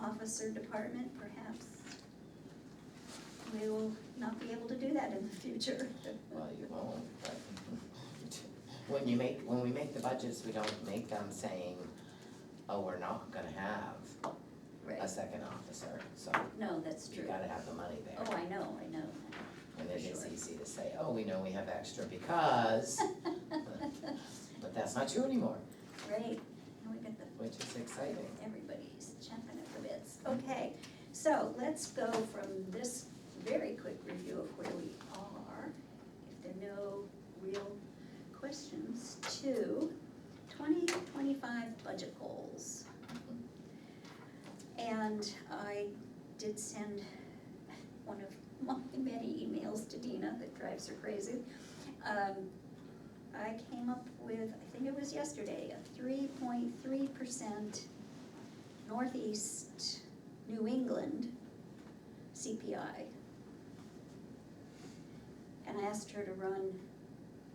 officer department, perhaps we will not be able to do that in the future. Well, you won't, but when you make, when we make the budgets, we don't make them saying, oh, we're not gonna have a Right, second officer, so no, that's you true. gotta have the money there. Oh, I know, I know. And then it's sure. easy to say, oh, we know we have extra because, but that's not true anymore, Right, now we got the which is exciting. Everybody's chomping at the bits. Okay, so let's go from this very quick review of where we are, if there are no real questions, to twenty twenty-five budget goals. Mm-hmm. And I did send one of my many emails to Dina that drives her crazy. Um, I came up with, I think it was yesterday, a three point three percent Northeast New England CPI. And I asked her to run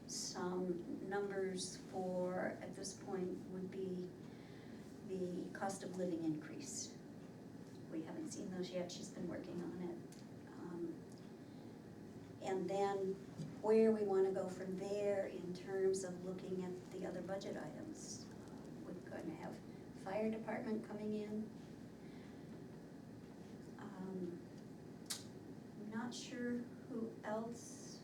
some numbers for, at this point, would be the cost of living increase. We haven't seen those yet, she's been working on it. Um, And then where we wanna go from there in terms of looking at the other budget items. We're gonna have fire department coming in. Um, Not sure who else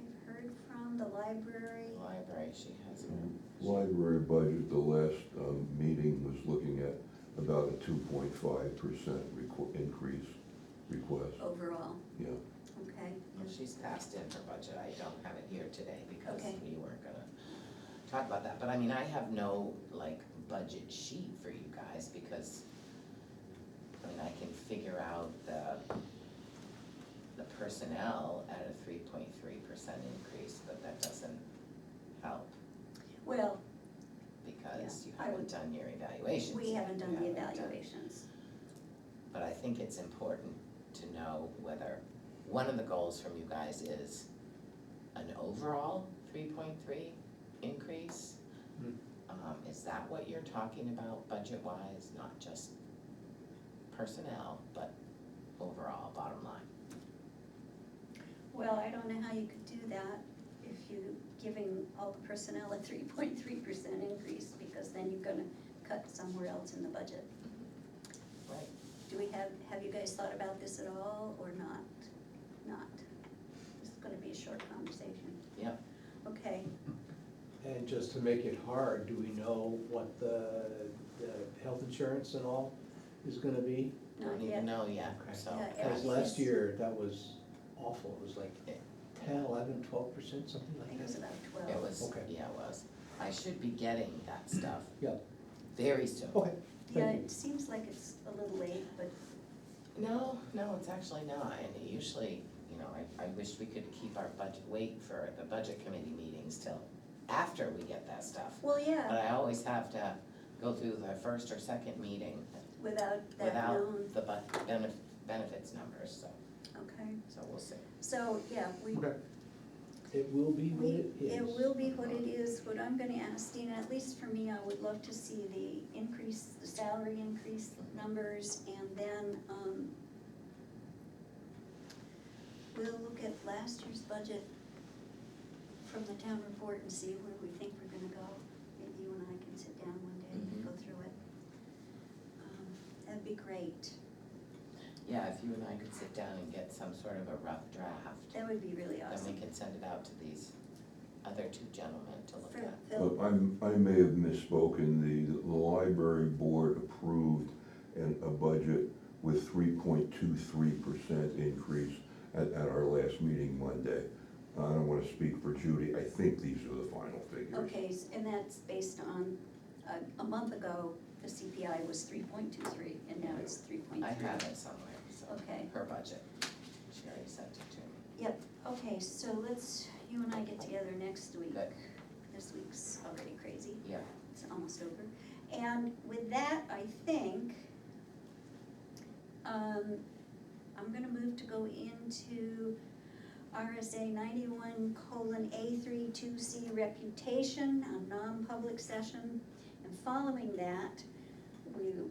we've heard from, the library. Library, she has one. Library budget, the last um, meeting was looking at about a two point five percent increase request, overall, yeah. okay? Well, she's passed in her budget, I don't have it here today because Okay. we weren't gonna talk about that, but I mean, I have no like budget sheet for you guys because I mean, I can figure out the the personnel at a three point three percent increase, but that doesn't help Well, because you Yeah, I would- haven't done your evaluations. we haven't done the You haven't done- evaluations. But I think it's important to know whether, one of the goals from you guys is an overall three point three increase. Hmm. Um, is that what you're talking about budget wise, not just personnel, but overall bottom line? Well, I don't know how you could do that if you're giving all the personnel a three point three percent increase, because then you're gonna cut somewhere else in the budget. Right. Do we have, have you guys thought about this at all, or not? Not? This is gonna be a short conversation. Yep. Okay, And just to make it hard, do we know what the, the health insurance and all is gonna be? not Don't even yet. know yet, Okay. so. Yeah, Because Yeah. last year, that was awful, it was like ten, eleven, twelve percent, something I like think it was that. about It twelve. was, Okay. yeah, it was. I should be getting that stuff Yeah, very soon. okay, Yeah, thank you. it seems like it's a little late, but No, no, it's actually not, and usually, you know, I, I wish we could keep our budget, wait for the budget committee meetings till after we get that stuff. Well, But yeah, I always have to go through the first or second meeting without that without known, the bu- benef- benefits numbers, so, okay, so we'll see. so, yeah, we, Okay. It will be what we, it is. it will be what it is, what I'm gonna ask Dina, at least for me, I would love to see the increase, the salary increase numbers, and then, um, we'll look at last year's budget from the town report and see where we think we're gonna go, maybe you and I can sit down one day and Mhm. go through it. Um, That'd be great, Yeah, if you and I could sit down and get some sort of a rough draft, that would be really then awesome. we can send it out to these other two gentlemen to look For at. Phil, But I'm, I may have misspoken, the, the library board approved an, a budget with three point two three percent increase at, at our last meeting Monday. I don't wanna speak for Judy, I think these are the final figures. Okay, s- and that's based on, uh, a month ago, the CPI was three point two three, and now it's three point I three. have it somewhere, so, Okay. her budget, she already sent it to me. Yep, okay, so let's, you and I get together next week. Good. This week's already crazy, Yeah, it's almost over. And with that, I think, um, I'm gonna move to go into RSA ninety-one colon A three two C reputation, a non-public session. And following that, we